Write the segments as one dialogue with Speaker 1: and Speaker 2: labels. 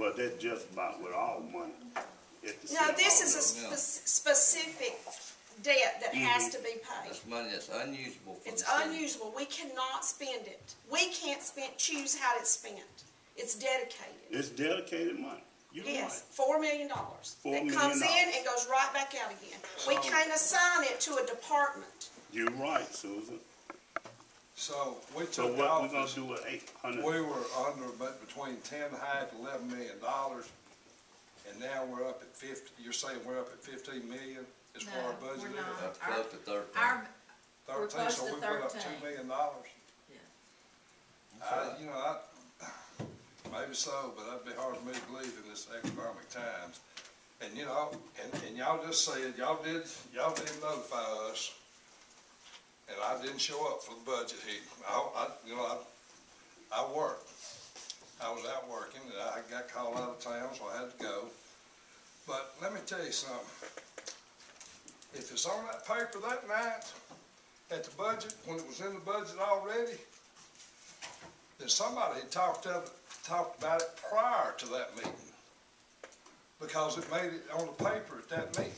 Speaker 1: Well, that's just about with all money. If the
Speaker 2: No,
Speaker 1: city
Speaker 2: this
Speaker 1: hall
Speaker 2: is a
Speaker 1: does.
Speaker 2: spe- specific debt
Speaker 1: Mm-hmm.
Speaker 2: that has to be paid.
Speaker 3: That's money that's unusable for the
Speaker 2: It's
Speaker 3: city.
Speaker 2: unusable, we cannot spend it. We can't spend, choose how it's spent. It's dedicated.
Speaker 1: It's dedicated money. You know
Speaker 2: Yes, four million dollars.
Speaker 1: Four
Speaker 2: It
Speaker 1: million
Speaker 2: comes in
Speaker 1: dollars.
Speaker 2: and goes right back out again. We can't assign it to a department.
Speaker 1: what? You're right, Susan.
Speaker 4: So we
Speaker 1: So
Speaker 4: took
Speaker 1: what we gonna
Speaker 4: office,
Speaker 1: do with eight
Speaker 4: we
Speaker 1: hundred?
Speaker 4: were under, but between ten and a half, eleven million dollars. And now we're up at fifty, you're saying we're up at fifteen million as far
Speaker 5: No,
Speaker 4: as budget
Speaker 5: we're
Speaker 4: is?
Speaker 5: not.
Speaker 3: Up close to thirteen.
Speaker 5: Our, We're
Speaker 4: Thirteen, so
Speaker 5: close
Speaker 4: we
Speaker 5: to
Speaker 4: went up
Speaker 5: 13.
Speaker 4: two million dollars.
Speaker 5: Yeah.
Speaker 4: I, you know, I, maybe so, but that'd be hard for me to believe in this economic times. And you know, and, and y'all just said, y'all did, y'all did notify us. And I didn't show up for the budget hearing. I, I, you know, I, I worked. I was out working and I got called out of town, so I had to go. But let me tell you something. If it's on that paper that night, at the budget, when it was in the budget already, then somebody had talked of, talked about it prior to that meeting. Because it made it on the paper at that meeting.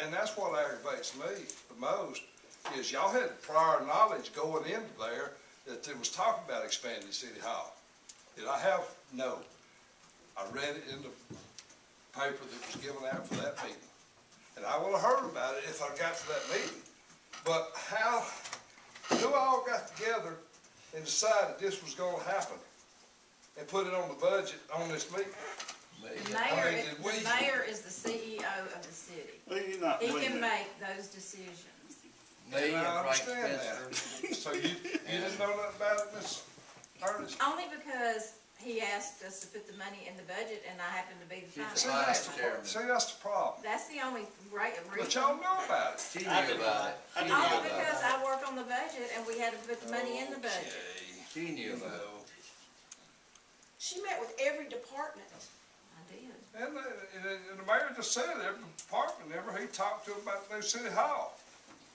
Speaker 4: And that's what aggravates me the most, is y'all had prior knowledge going into there that there was talk about expanding City Hall. Did I have? No. I read it in the paper that was given out for that meeting. And I would have heard about it if I got to that meeting. But how, who all got together and decided this was gonna happen? And put it on the budget on this meeting?
Speaker 5: the
Speaker 3: Million.
Speaker 4: I
Speaker 5: mayor,
Speaker 4: mean,
Speaker 5: is-
Speaker 4: did we-
Speaker 5: the mayor is the CEO of the city.
Speaker 1: Well, you're not
Speaker 5: He
Speaker 1: with
Speaker 5: can
Speaker 1: it.
Speaker 5: make those decisions.
Speaker 3: Me
Speaker 4: I
Speaker 3: and Frank
Speaker 4: understand that.
Speaker 3: Spencer.
Speaker 4: So you, you didn't know nothing about it, Miss Ernest?
Speaker 5: Only because he asked us to put the money in the budget and I happen to be the
Speaker 3: She's
Speaker 4: See,
Speaker 3: a
Speaker 5: finance.
Speaker 3: vice
Speaker 4: that's the,
Speaker 3: chairman.
Speaker 4: see, that's the problem.
Speaker 5: That's the only great
Speaker 4: But
Speaker 5: reason.
Speaker 4: y'all know about it.
Speaker 3: She knew about it. She knew
Speaker 5: Only
Speaker 3: about
Speaker 5: because
Speaker 3: it.
Speaker 5: I work on the budget and we had to put the money
Speaker 4: Oh,
Speaker 5: in the budget.
Speaker 4: Okay.
Speaker 3: She knew about it.
Speaker 2: She met with every department.
Speaker 5: I did.
Speaker 4: And, the- and, the- and the mayor just said, every department, ever he talked to about the new city hall.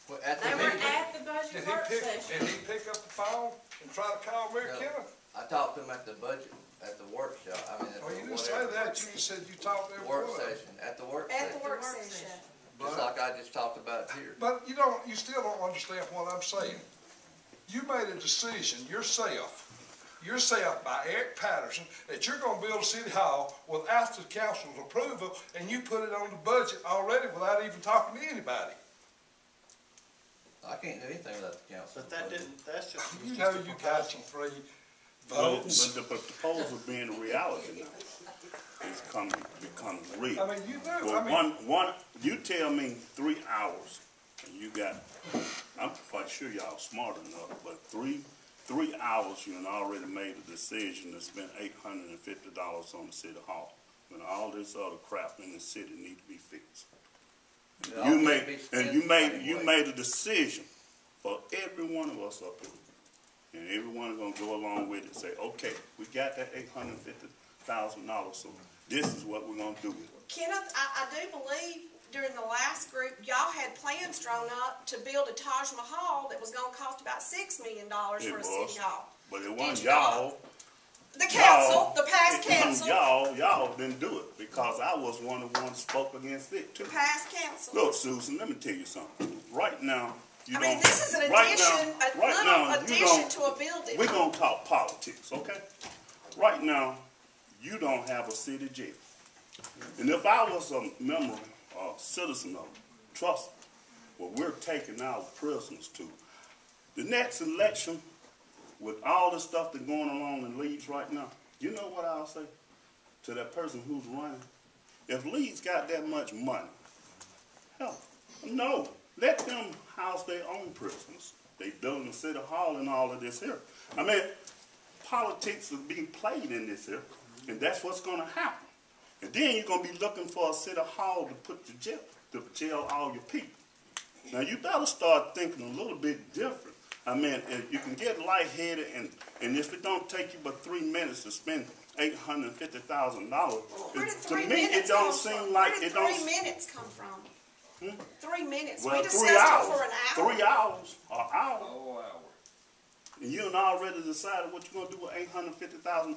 Speaker 3: Well, at the
Speaker 5: They were
Speaker 3: meeting,
Speaker 5: at the
Speaker 4: Did
Speaker 5: budget
Speaker 4: he
Speaker 5: work
Speaker 4: pick,
Speaker 5: session.
Speaker 4: did he pick up the phone and try to call Mayor
Speaker 3: No.
Speaker 4: Kenneth?
Speaker 3: I talked to him at the budget, at the workshop, I mean, at
Speaker 4: Well, Oh, you
Speaker 3: the
Speaker 4: didn't say
Speaker 3: whatever.
Speaker 4: that, you just said you talked to every
Speaker 3: Work
Speaker 4: one of them.
Speaker 3: session, at the work
Speaker 2: At
Speaker 3: session,
Speaker 2: the work session.
Speaker 3: just like I just talked about here.
Speaker 4: But you don't, you still don't understand what I'm saying. You made a decision yourself, yourself by Eric Patterson, that you're gonna build a city hall without the council's approval, and you put it on the budget already without even talking to anybody.
Speaker 3: I can't do anything without the council.
Speaker 6: But that didn't, that's just.
Speaker 4: You know you got your three
Speaker 1: No,
Speaker 4: votes.
Speaker 1: but the proposal being a reality now, it's coming, becoming real.
Speaker 4: I mean, you do,
Speaker 1: Well,
Speaker 4: I
Speaker 1: one,
Speaker 4: mean,
Speaker 1: one, you tell me three hours, and you got, I'm quite sure y'all smart enough, but three, three hours, you done already made a decision to spend eight hundred and fifty dollars on the city hall, when all this other crap in the city need to be fixed.
Speaker 3: It all
Speaker 1: You
Speaker 3: can't
Speaker 1: made,
Speaker 3: be
Speaker 1: and
Speaker 3: spent
Speaker 1: you
Speaker 3: the
Speaker 1: made,
Speaker 3: same
Speaker 1: you
Speaker 3: way.
Speaker 1: made a decision for every one of us up here. And everyone's gonna go along with it, say, okay, we got that eight hundred and fifty thousand dollars, so this is what we're gonna do with it.
Speaker 2: Kenneth, I, I do believe during the last group, y'all had plans drawn up to build a Taj Mahal that was gonna cost about six million dollars
Speaker 1: It
Speaker 2: for a
Speaker 1: was.
Speaker 2: city hall.
Speaker 1: But it wasn't
Speaker 2: you not?
Speaker 1: y'all.
Speaker 2: The council, the past
Speaker 1: It wasn't
Speaker 2: council,
Speaker 1: Y'all, y'all didn't do it because I was one of the ones spoke against it too.
Speaker 2: the past council.
Speaker 1: Look, Susan, let me tell you something. Right now, you
Speaker 2: I
Speaker 1: don't.
Speaker 2: mean, this is an
Speaker 1: right now-
Speaker 2: addition, a
Speaker 1: right now,
Speaker 2: little
Speaker 1: you
Speaker 2: addition
Speaker 1: don't-
Speaker 2: to a building.
Speaker 1: We're gonna talk politics, okay? Right now, you don't have a city jail. And if I was a member, a citizen of trust, where we're taking our prisoners to, the next election, with all the stuff that's going along in Leeds right now, you know what I'll say to that person who's running? If Leeds got that much money, Hell, no. Let them house their own prisoners. They building the city hall and all of this here. I mean, politics is being played in this here, and that's what's going to happen. And then you're going to be looking for a city hall to put your jail, to jail all your people. Now you better start thinking a little bit different. I mean, if you can get lightheaded, and and if it don't take you but three minutes to spend eight hundred fifty thousand dollars,
Speaker 2: Where did
Speaker 1: to
Speaker 2: three
Speaker 1: me it
Speaker 2: minutes
Speaker 1: don't
Speaker 2: come
Speaker 1: seem
Speaker 2: from?
Speaker 1: like
Speaker 2: Where did
Speaker 1: it don't. Hmm?
Speaker 2: three minutes come from? Three minutes.
Speaker 1: Well,
Speaker 2: We discussed
Speaker 1: three
Speaker 2: it
Speaker 1: hours.
Speaker 2: for an hour.
Speaker 1: Three hours, an hour,
Speaker 4: oh, hour.
Speaker 1: and you done already decided what you're gonna do with eight hundred fifty thousand.